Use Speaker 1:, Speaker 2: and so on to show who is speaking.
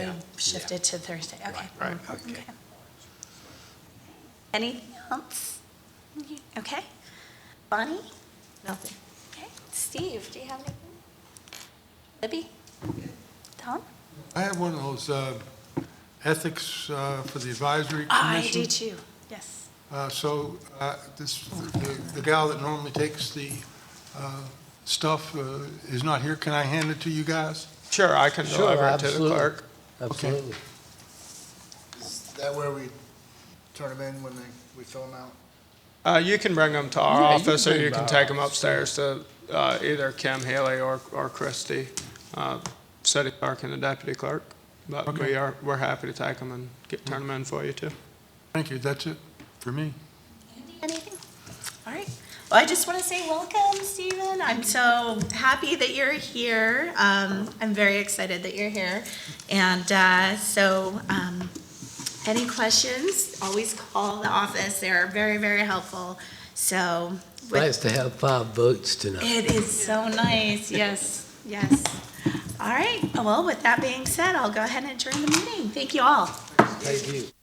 Speaker 1: We
Speaker 2: Yeah.
Speaker 1: shifted to Thursday, okay.
Speaker 2: Right, right, okay.
Speaker 1: Anything else? Okay. Bonnie?
Speaker 3: Nothing.
Speaker 1: Okay. Steve, do you have anything? Libby? Tom?
Speaker 4: I have one of those uh, ethics uh, for the advisory commission.
Speaker 1: Ah, I do too, yes.
Speaker 4: Uh, So uh, this, the- the gal that normally takes the uh, stuff uh, is not here. Can I hand it to you guys?
Speaker 2: Sure, I can
Speaker 5: Sure,
Speaker 2: deliver it to the
Speaker 5: absolutely.
Speaker 2: clerk.
Speaker 5: Absolutely.
Speaker 6: Is that where we turn them in when they, we fill them out?
Speaker 2: Uh, you can bring them to our
Speaker 5: Yeah, you
Speaker 2: office,
Speaker 5: can
Speaker 2: or
Speaker 5: bring
Speaker 2: you
Speaker 5: them
Speaker 2: can
Speaker 5: to our
Speaker 2: take them upstairs to, uh, either Kim Haley or, or Christie, uh, city clerk and the deputy clerk. But we
Speaker 4: Okay.
Speaker 2: are, we're happy to take them and get, turn them in for you too.
Speaker 4: Thank you, that's it for me.
Speaker 1: Anything? All right. Well, I just want to say welcome, Stephen. I'm so happy that you're here. Um, I'm very excited that you're here. And uh, so, um, any questions, always call the office. They're very, very helpful. So, with-
Speaker 5: Nice to have five votes tonight.
Speaker 1: it is so nice. Yes, yes. All right. Well, with that being said, I'll go ahead and adjourn the meeting. Thank you all.
Speaker 5: Thank you.